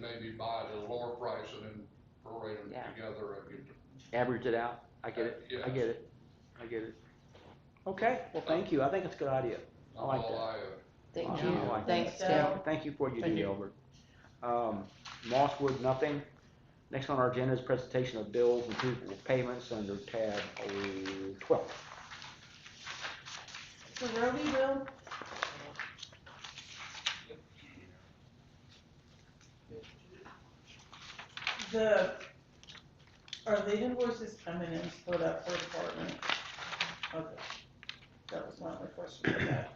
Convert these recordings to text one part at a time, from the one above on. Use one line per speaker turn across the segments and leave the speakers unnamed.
maybe buy it at a lower price and then prorate them
Yeah.
together and get.
average it out, I get it, I get it, I get it. Okay, well, thank you, I think it's a good idea. I like that.
Thank
I
you,
Oh,
like that.
thanks,
Thank-
Dale.
Thank you for what you
Thank
do,
you.
Albert. Um, Mosswood, nothing. Next on our agenda is presentation of bills and approval of payments under tab oh, twelve.
So Roby, Will,
The, are the invoices coming in split up for department? Okay, that was my only question for that.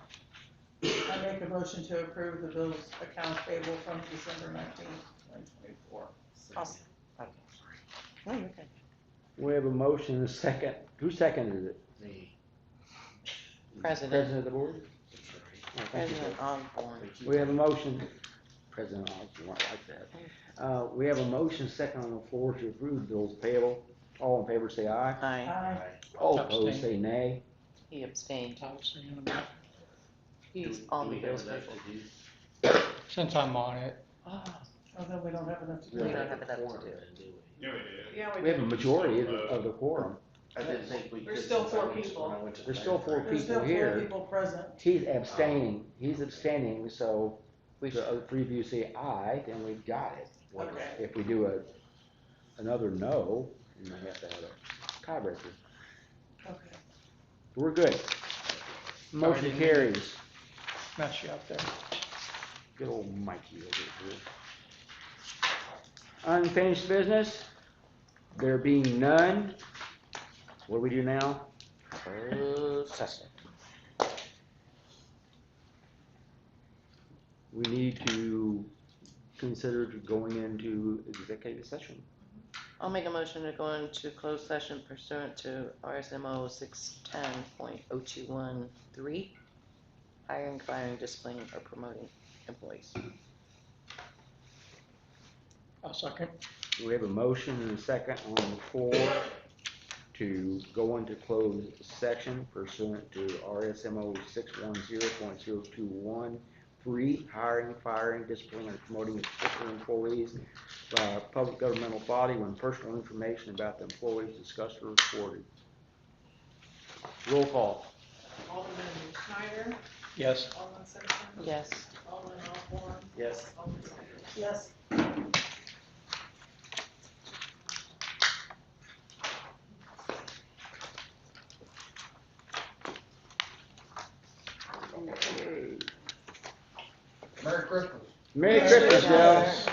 I make a motion to approve the bills accounts payable from December nineteenth, twenty twenty-four.
Awesome. no, you're good.
We have a motion and a second. Who seconded it?
Me.
President,
of the board?
That's
Oh,
right.
thank you, sir.
President Osborne.
We have a motion, President Osborne, I like that. Uh, we have a motion second on the floor to approve bills payable. All in favor, say aye.
Aye,
Aye.
Aye.
All opposed, Oh, say nay.
he abstained.
Do-
He's
do
on the
we have
bills
enough
table.
to do?
Since I'm on it,
Ah,
Oh, no, we don't have enough to
We
do.
don't have enough to
Quorum
do.
then, do we?
Yeah, we did.
Yeah,
We have a majority of, the- of the quorum.
I didn't think we could.
There's still
since I
four
went to-
people.
when I went to the
There's still four
bank.
There's still
people
four
here.
people present.
He's abstaining, he's abstaining, so
We
the
should,
other three of you say aye, then we've got it.
Okay.
If we do a, another no, then we have to have a tiebreaker.
Okay.
We're good. Motion
didn't-
carries.
mess you up there.
Good old Mikey over here. Unfinished business, there being none, what do we do now?
closed session.
We need to consider going into executive session.
I'll make a motion to go into closed session pursuant to RSMO six ten point oh two one three. Hiring, firing, disciplining, or promoting employees.
I'll second.
We have a motion and a second on the floor to go into closed section pursuant to RSMO six one zero point zero two one. Three, hiring, firing, disciplining, or promoting particular employees by a public governmental body when personal information about the employees discussed or reported. Roll call.
Alderman Schneider,
Yes.
Alderman Simpson,
Yes.
Alderman Osborne,
Yes.
Alderman Schneider.
Yes.
Merry Christmas.
Merry
Merry
Christmas,
Christmas.
y'all.